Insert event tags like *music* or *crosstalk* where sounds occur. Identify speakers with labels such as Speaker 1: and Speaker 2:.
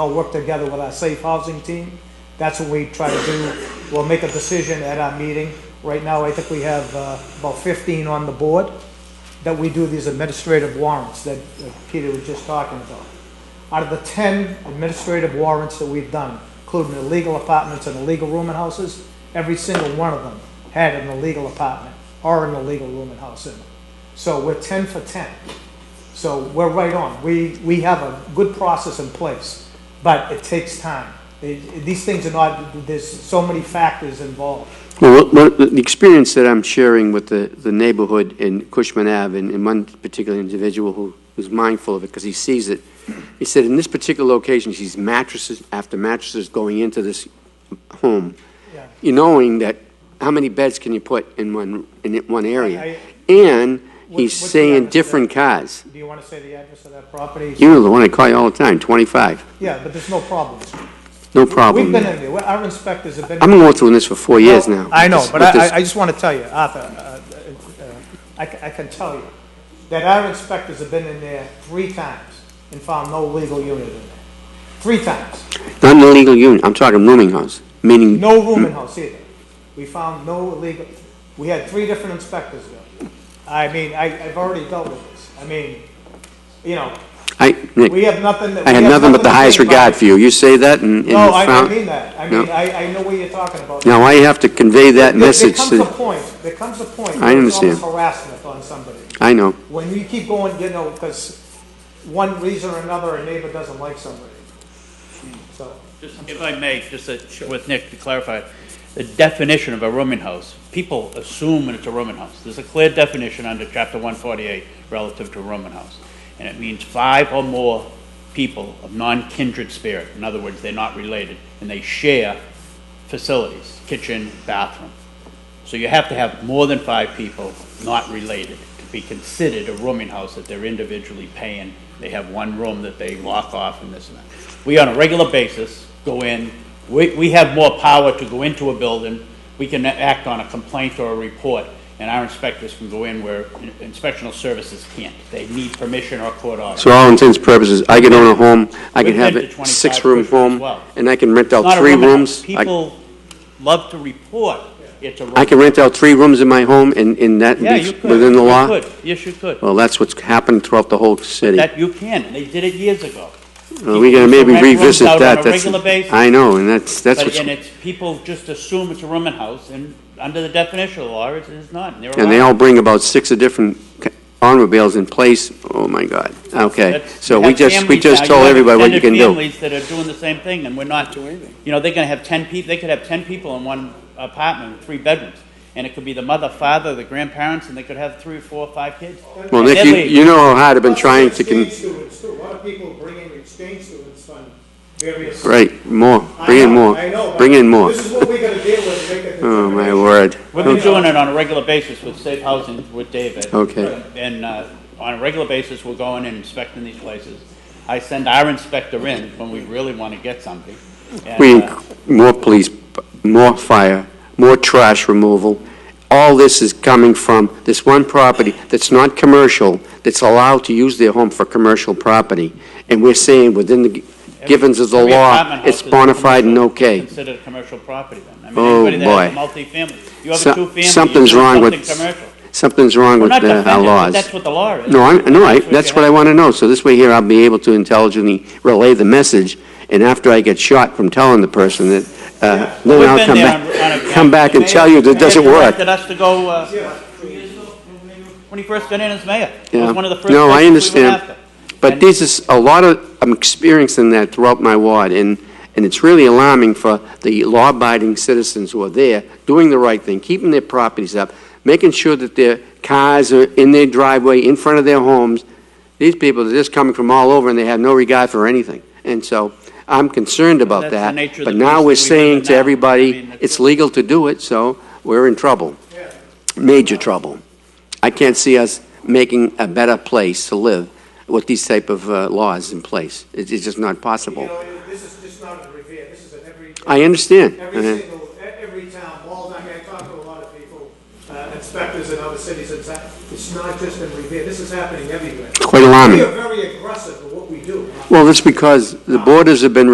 Speaker 1: I'll work together with our safe housing team. That's what we try to do. We'll make a decision at our meeting. Right now, I think we have uh, about 15 on the board that we do these administrative warrants that uh, Peter was just talking about. Out of the 10 administrative warrants that we've done, including illegal apartments and illegal rooming houses, every single one of them had an illegal apartment or an illegal rooming house in it. So we're 10 for 10. So we're right on. We, we have a good process in place, but it takes time. It- These things are not, there's so many factors involved.
Speaker 2: Well, what- what- the the experience that I'm sharing with the, the neighborhood in Cushman Ave, and, and one particular individual who, who's mindful of it, because he sees it, he said, in this particular location, he sees mattresses after mattresses going into this home,
Speaker 1: Yeah.
Speaker 2: you knowing that, how many beds can you put in one, in it- one area?
Speaker 1: I-
Speaker 2: And
Speaker 1: What-
Speaker 2: he's
Speaker 1: what's the address
Speaker 2: saying
Speaker 1: of
Speaker 2: different cars.
Speaker 1: Do you want to say the address of that property?
Speaker 2: You're the one I call you all the time, 25,
Speaker 1: Yeah, but there's no problems.
Speaker 2: no
Speaker 1: We've
Speaker 2: problem.
Speaker 1: been in there. Well, Our inspectors have been.
Speaker 2: I've been going through this for four years now.
Speaker 1: I know,
Speaker 2: with
Speaker 1: but
Speaker 2: this-
Speaker 1: I, I- I just want to tell you, Arthur, uh, uh, uh, I c- I can tell you that our inspectors have been in there three times and found no legal unit in there. Three times.
Speaker 2: Not an illegal unit, I'm talking rooming house, meaning
Speaker 1: No room in house either. We found no illegal, we had three different inspectors there. I mean, I, I've already dealt with this. I mean, you know,
Speaker 2: I, Nick,
Speaker 1: we have nothing that.
Speaker 2: I
Speaker 1: we
Speaker 2: had
Speaker 1: have
Speaker 2: nothing but the
Speaker 1: to
Speaker 2: highest
Speaker 1: say about
Speaker 2: regard
Speaker 1: it.
Speaker 2: for you. You say that and, and you
Speaker 1: No, I, I
Speaker 2: found...
Speaker 1: mean that. I
Speaker 2: No.
Speaker 1: mean, I, I know what you're talking about.
Speaker 2: Now, I have to convey that
Speaker 1: There-
Speaker 2: message
Speaker 1: There comes
Speaker 2: to,
Speaker 1: a point, there comes a point.
Speaker 2: I
Speaker 1: where it's almost
Speaker 2: understand.
Speaker 1: Harassment on somebody.
Speaker 2: I know,
Speaker 1: When you keep going, you know, because one reason or another, a neighbor doesn't like somebody. So,
Speaker 3: Just if I may, just to- with Nick to clarify, the definition of a rooming house, people assume that it's a rooming house. There's a clear definition under chapter one forty-eight relative to a rooming house. And it means five or more people of non-kindred spirit. In other words, they're not related and they share facilities, kitchen, bathroom. So you have to have more than five people not related to be considered a rooming house that they're individually paying. They have one room that they lock off and this and that. We, on a regular basis, go in, we, we have more power to go into a building. We can act on a complaint or a report, and our inspectors can go in where in- inspectional services can't. They need permission or court order.
Speaker 2: so all intents and purposes, I can own a home, I can
Speaker 3: We've
Speaker 2: have
Speaker 3: been to
Speaker 2: a
Speaker 3: 25
Speaker 2: six-room
Speaker 3: cushions as
Speaker 2: home,
Speaker 3: well.
Speaker 2: and I can rent
Speaker 3: It's not
Speaker 2: out
Speaker 3: a
Speaker 2: three
Speaker 3: rooming house.
Speaker 2: rooms. I
Speaker 3: People love to report it's a rooming.
Speaker 2: I can rent out three rooms in my home, and, and that
Speaker 3: Yeah, you
Speaker 2: be
Speaker 3: could.
Speaker 2: within the
Speaker 3: You
Speaker 2: law?
Speaker 3: could. Yes, you could.
Speaker 2: Well, that's what's happened throughout the whole city.
Speaker 3: That you can, and they did it years ago.
Speaker 2: Well, We gotta
Speaker 3: People
Speaker 2: maybe
Speaker 3: rent rooms
Speaker 2: revisit
Speaker 3: out on
Speaker 2: that,
Speaker 3: a
Speaker 2: that's,
Speaker 3: regular basis.
Speaker 2: I know, and that's, that's
Speaker 3: But,
Speaker 2: what's,
Speaker 3: and it's, people just assume it's a rooming house, and under the definition of law, it is not, and they're
Speaker 2: and they
Speaker 3: allowed.
Speaker 2: all bring about six of different ca- automobiles in place, oh my God, okay.
Speaker 3: That's-
Speaker 2: So
Speaker 3: you
Speaker 2: we
Speaker 3: have
Speaker 2: just, we
Speaker 3: families now,
Speaker 2: just
Speaker 3: you
Speaker 2: told
Speaker 3: have
Speaker 2: everybody what you can
Speaker 3: extended
Speaker 2: do.
Speaker 3: Families that are doing the same thing, and we're not, you know, they're gonna have ten people, they could have ten people in one apartment, with three bedrooms. And it could be the mother, father, the grandparents, and they could have three, four, five kids.
Speaker 2: Well,
Speaker 3: And
Speaker 2: Nick,
Speaker 3: they're
Speaker 2: you,
Speaker 3: leaving.
Speaker 2: you know how hard I've been trying to,
Speaker 1: Exchange
Speaker 2: con-
Speaker 1: students too. A lot of people bring in exchange students on various.
Speaker 2: right, more,
Speaker 1: I
Speaker 2: bring
Speaker 1: know,
Speaker 2: in more,
Speaker 1: I know, but
Speaker 2: bring in more.
Speaker 1: This is what we gotta deal with, make a
Speaker 2: *laughs* Oh, my
Speaker 1: determination.
Speaker 2: word.
Speaker 3: We've been doing it on a regular basis with safe housing with David.
Speaker 2: Okay.
Speaker 3: And uh, on a regular basis, we're going and inspecting these places. I send our inspector in when we really want to get something. And,
Speaker 2: We,
Speaker 3: uh,
Speaker 2: inc- more police, more fire, more trash removal. All this is coming from this one property that's not commercial, that's allowed to use their home for commercial property. And we're saying within the gi- givens of the
Speaker 3: every
Speaker 2: law,
Speaker 3: apartment house
Speaker 2: it's
Speaker 3: is a
Speaker 2: bona fide and
Speaker 3: commercial-
Speaker 2: okay.
Speaker 3: Considered a commercial property then. I mean,
Speaker 2: Oh,
Speaker 3: anybody that has a
Speaker 2: boy.
Speaker 3: multifamily, you have
Speaker 2: So-
Speaker 3: a two-family, you're
Speaker 2: something's
Speaker 3: doing
Speaker 2: wrong with-
Speaker 3: something commercial.
Speaker 2: Something's wrong
Speaker 3: We're
Speaker 2: with
Speaker 3: not
Speaker 2: uh,
Speaker 3: defending
Speaker 2: our
Speaker 3: it, but
Speaker 2: laws.
Speaker 3: that's what the law is.
Speaker 2: No, I'm, no, I,
Speaker 3: That's what
Speaker 2: that's
Speaker 3: you
Speaker 2: what I
Speaker 3: have.
Speaker 2: want to know. So this way here, I'll be able to intelligently relay the message, and after I get shot from telling the person that, uh, then
Speaker 3: We've
Speaker 2: I'll
Speaker 3: been
Speaker 2: come
Speaker 3: there on- on
Speaker 2: back,
Speaker 3: a-
Speaker 2: come back and
Speaker 3: the
Speaker 2: tell
Speaker 3: mayor-
Speaker 2: you that
Speaker 3: the
Speaker 2: it doesn't
Speaker 3: mayor
Speaker 2: work.
Speaker 3: directed us to go, uh, two years ago, when he first got in as mayor. It
Speaker 2: Yeah.
Speaker 3: was one of the first
Speaker 2: No, I
Speaker 3: places we went
Speaker 2: understand.
Speaker 3: after.
Speaker 2: But
Speaker 3: And-
Speaker 2: this is, a lot of, I'm experiencing that throughout my ward, and, and it's really alarming for the law-abiding citizens who are there, doing the right thing, keeping their properties up, making sure that their cars are in their driveway, in front of their homes. These people are just coming from all over, and they have no regard for anything. And so I'm concerned about
Speaker 3: that's the
Speaker 2: that.
Speaker 3: nature of
Speaker 2: But
Speaker 3: the
Speaker 2: now we're
Speaker 3: beast that we live in
Speaker 2: saying to
Speaker 3: now. I
Speaker 2: everybody,
Speaker 3: mean, that's
Speaker 2: it's
Speaker 3: what-
Speaker 2: legal to do it, so we're in trouble. Major trouble. I can't see us making a better place to live with these type of uh, laws in place. It's it's just
Speaker 1: You
Speaker 2: not possible.
Speaker 1: know, this is just not a revere, this is an every,
Speaker 2: I understand.
Speaker 1: every
Speaker 2: Uh,
Speaker 1: single, e- every town, Walden, I mean, I talk to a lot of people, uh, inspectors in other cities, and that- it's not just in revere, this is happening everywhere.
Speaker 2: It's quite
Speaker 1: We are
Speaker 2: alarming.
Speaker 1: very aggressive in what we do.
Speaker 2: Well, that's because the borders have been